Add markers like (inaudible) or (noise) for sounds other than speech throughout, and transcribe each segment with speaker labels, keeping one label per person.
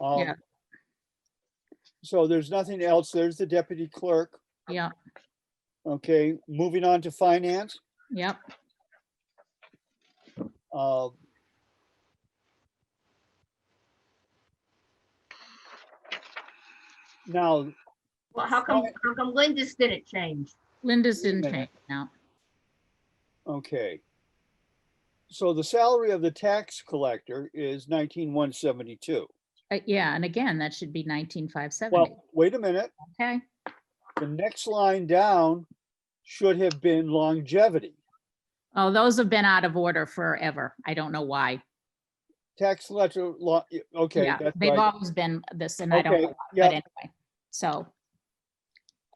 Speaker 1: Um,
Speaker 2: Yeah.
Speaker 1: So there's nothing else. There's the deputy clerk.
Speaker 2: Yeah,
Speaker 1: Okay, moving on to finance.
Speaker 2: yeah.
Speaker 1: uh, Now,
Speaker 3: Well, how come, how come Linda's didn't change?
Speaker 2: Linda's
Speaker 1: Wait a
Speaker 2: didn't change
Speaker 1: minute.
Speaker 2: now.
Speaker 1: okay. So the salary of the tax collector is nineteen one seventy-two.
Speaker 2: Uh, yeah, and again, that should be nineteen five seventy,
Speaker 1: Well, wait a minute.
Speaker 2: okay?
Speaker 1: The next line down should have been longevity.
Speaker 2: Oh, those have been out of order forever. I don't know why.
Speaker 1: Tax collector, law, okay,
Speaker 2: Yeah,
Speaker 1: that's
Speaker 2: they've
Speaker 1: right.
Speaker 2: always been this and I don't
Speaker 1: Okay,
Speaker 2: know, but
Speaker 1: yeah,
Speaker 2: anyway, so.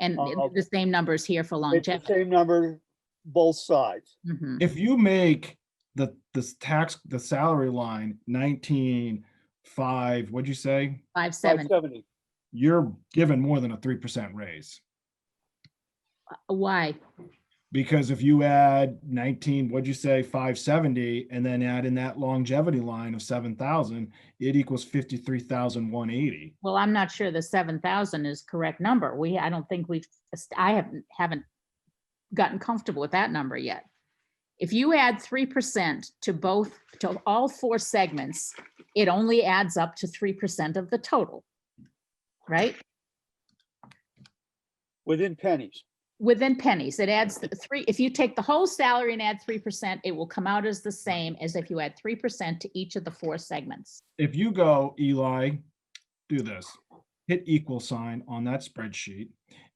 Speaker 2: And
Speaker 1: Uh,
Speaker 2: the same numbers here for
Speaker 1: it's the
Speaker 2: longevity.
Speaker 1: same number, both sides.
Speaker 2: Mhm.
Speaker 4: If you make the, this tax, the salary line nineteen, five, what'd you say?
Speaker 2: Five
Speaker 1: Five
Speaker 2: seven,
Speaker 1: seventy.
Speaker 4: You're given more than a three percent raise.
Speaker 2: why?
Speaker 4: Because if you add nineteen, what'd you say, five seventy, and then add in that longevity line of seven thousand, it equals fifty-three thousand one eighty.
Speaker 2: Well, I'm not sure the seven thousand is correct number. We, I don't think we've, est- I haven't, haven't gotten comfortable with that number yet. If you add three percent to both, to all four segments, it only adds up to three percent of the total. Right?
Speaker 1: Within pennies.
Speaker 2: Within pennies, it adds the three, if you take the whole salary and add three percent, it will come out as the same as if you add three percent to each of the four segments.
Speaker 4: If you go, Eli, do this, hit equal sign on that spreadsheet.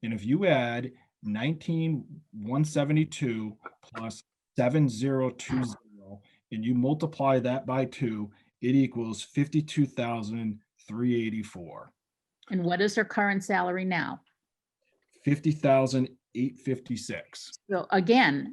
Speaker 4: And if you add nineteen, one seventy-two plus seven zero two zero, and you multiply that by two, it equals fifty-two thousand three eighty-four,
Speaker 2: And what is her current salary now?
Speaker 4: fifty thousand eight fifty-six.
Speaker 2: So again,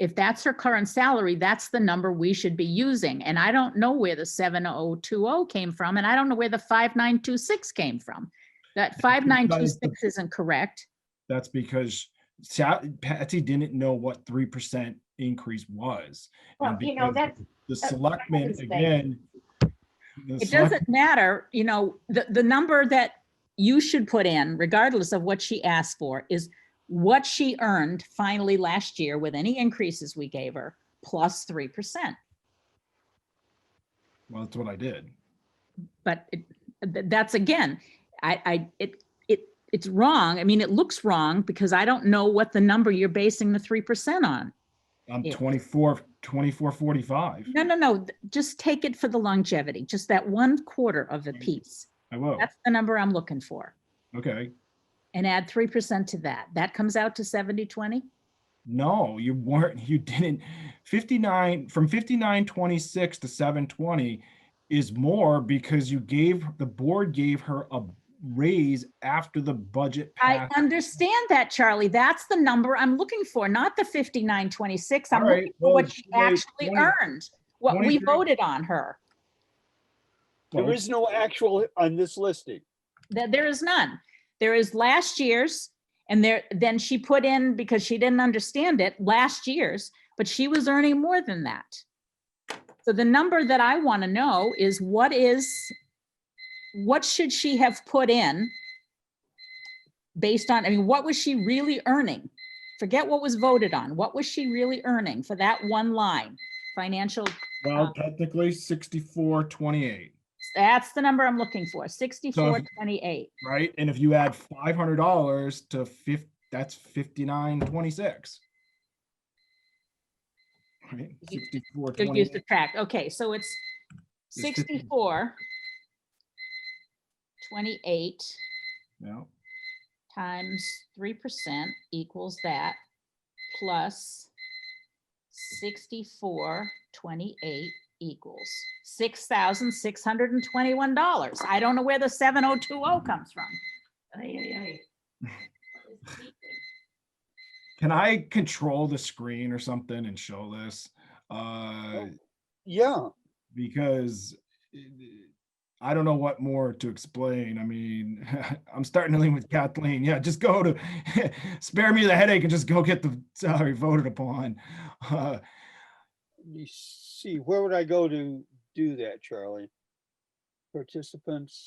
Speaker 2: if that's her current salary, that's the number we should be using. And I don't know where the seven oh two oh came from, and I don't know where the five nine two six came from. That five nine two six isn't correct.
Speaker 4: That's because Sa- Patsy didn't know what three percent increase was.
Speaker 3: Well,
Speaker 4: and
Speaker 3: you know,
Speaker 4: because
Speaker 3: that's,
Speaker 4: The
Speaker 3: that's my
Speaker 4: selectmen,
Speaker 3: mistake.
Speaker 4: again. the
Speaker 2: It
Speaker 4: select-
Speaker 2: doesn't matter, you know, the, the number that you should put in, regardless of what she asked for, is what she earned finally last year with any increases we gave her, plus three percent.
Speaker 4: Well, that's what I did.
Speaker 2: but it, th- that's again, I, I, it, it, it's wrong. I mean, it looks wrong because I don't know what the number you're basing the three percent on.
Speaker 4: I'm
Speaker 2: Yeah.
Speaker 4: 24, 24, 45.
Speaker 2: No, no, no, th- just take it for the longevity, just that one quarter of the piece.
Speaker 4: I will.
Speaker 2: That's the number I'm looking for.
Speaker 4: Okay.
Speaker 2: And add three percent to that. That comes out to seventy, twenty?
Speaker 4: No, you weren't, (laughs) you didn't. 59, from 5926 to 720 is more because you gave, the board gave her a raise after the budget
Speaker 2: I
Speaker 4: passed.
Speaker 2: understand that, Charlie. That's the number I'm looking for, not the fifty-nine, twenty-six. I'm
Speaker 4: All right,
Speaker 2: looking for what
Speaker 4: well,
Speaker 2: she
Speaker 4: wait,
Speaker 2: actually
Speaker 4: 20
Speaker 2: earned, what we
Speaker 4: 23
Speaker 2: voted on her.
Speaker 1: There is no actual on this listing.
Speaker 2: That there is none. There is last year's and there, then she put in, because she didn't understand it, last year's, but she was earning more than that. So the number that I want to know is what is, what should she have put in? Based on, I mean, what was she really earning? Forget what was voted on. What was she really earning for that one line? Financial
Speaker 4: Well, technically 6428.
Speaker 2: That's the number I'm looking for, sixty-four twenty-eight.
Speaker 4: right? And if you add five hundred dollars to fif, that's fifty-nine twenty-six. Right,
Speaker 2: You-
Speaker 4: sixty-four
Speaker 2: Did you
Speaker 4: twenty,
Speaker 2: subtract? Okay, so it's
Speaker 4: It's fifty.
Speaker 2: sixty-four twenty-eight
Speaker 4: no,
Speaker 2: times three percent equals that plus sixty-four twenty-eight equals six thousand six hundred and twenty-one dollars. I don't know where the seven oh two oh comes from.
Speaker 3: ay, ay, ay.
Speaker 4: can I control the screen or something and show this? Uh,
Speaker 1: Yeah,
Speaker 4: because it- I don't know what more to explain. I mean, (laughs) I'm starting to lean with Kathleen. Yeah, just go to, (laughs) spare me the headache and just go get the (laughs) salary voted upon. Uh,
Speaker 1: let me see, where would I go to do that, Charlie? participants.